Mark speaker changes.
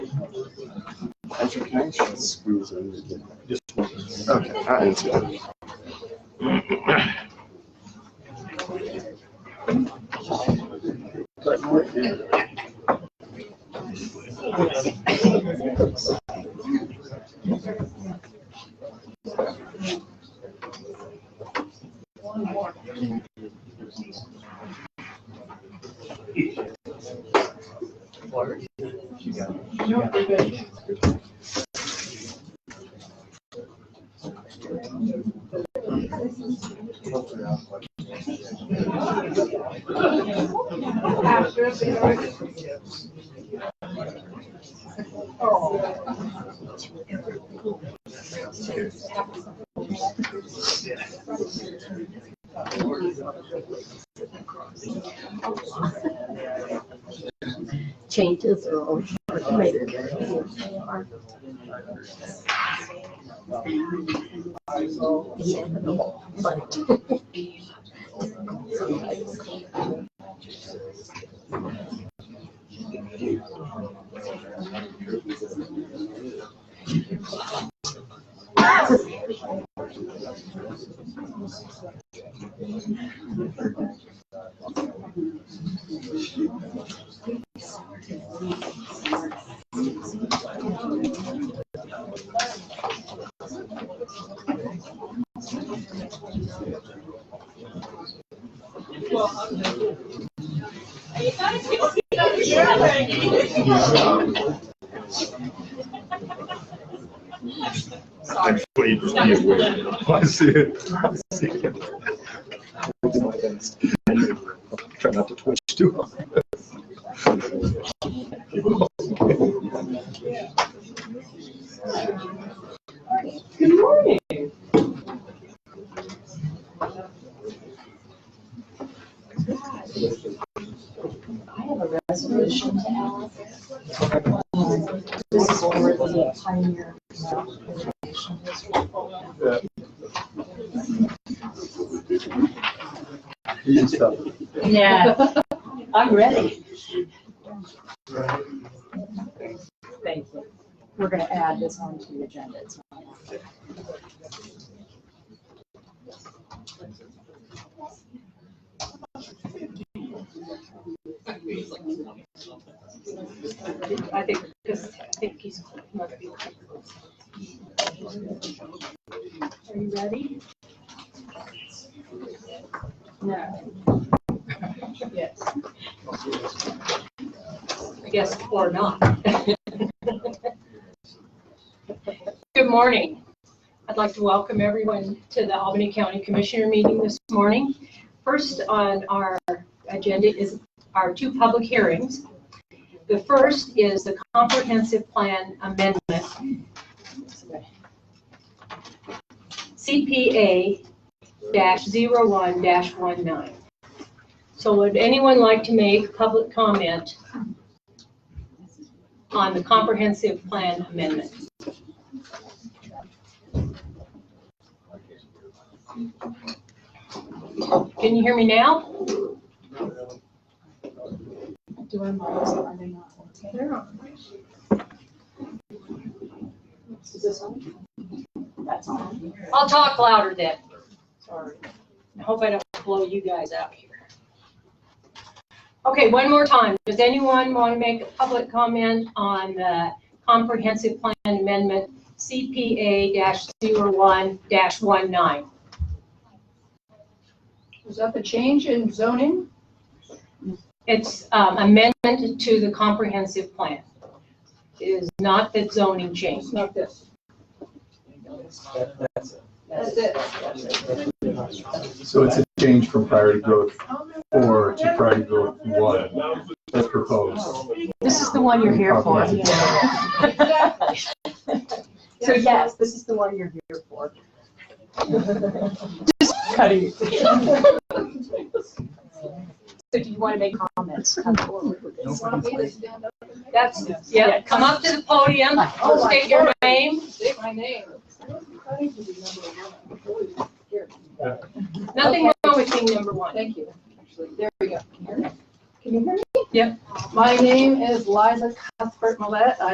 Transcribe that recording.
Speaker 1: Education screws in again.
Speaker 2: Just
Speaker 1: Okay, I didn't see that.
Speaker 3: changes are always hard to make. Yeah, no, but-
Speaker 2: Actually, just be aware. I see it. I see it. Try not to twitch too.
Speaker 4: Good morning. I have a resolution to add. This is for the pioneer. Preservation District.
Speaker 5: Yeah, I'm ready.
Speaker 4: Thank you. We're gonna add this onto the agenda. It's not.
Speaker 5: I think, because I think he's. must be- Are you ready? No. Yes. I guess, or not. Good morning. I'd like to welcome everyone to the Albany County Commissioner meeting this morning. First on our agenda is our two public hearings. The first is the comprehensive plan amendment. CPA dash zero one dash one nine. So would anyone like to make public comment on the comprehensive plan amendment? Can you hear me now?
Speaker 4: Do I mind? Are they not? They're on. Is this on? That's on.
Speaker 5: I'll talk louder then.
Speaker 4: Sorry.
Speaker 5: I hope I don't blow you guys out here. Okay, one more time. Does anyone want to make a public comment on the comprehensive plan amendment CPA one one nine?
Speaker 6: Was that the change in zoning?
Speaker 5: It's um, amendment to the comprehensive plan. It is not the zoning change.
Speaker 6: It's not this. That's it. That's it.
Speaker 7: So it's a change from priority growth four to priority growth one, as proposed.
Speaker 4: This is the one you're here for. So yes, this is the one you're here for. Just cutting. So do you want to make comments? Come forward with this.
Speaker 6: Want me to stand up?
Speaker 5: That's, yeah, come up to the podium,
Speaker 4: Oh,
Speaker 5: state your name.
Speaker 6: Say my name.
Speaker 5: Nothing wrong with being number one.
Speaker 6: Thank you. There we go. Can you hear me?
Speaker 5: Yep.
Speaker 6: My name is Liza Cuthbert Millet. I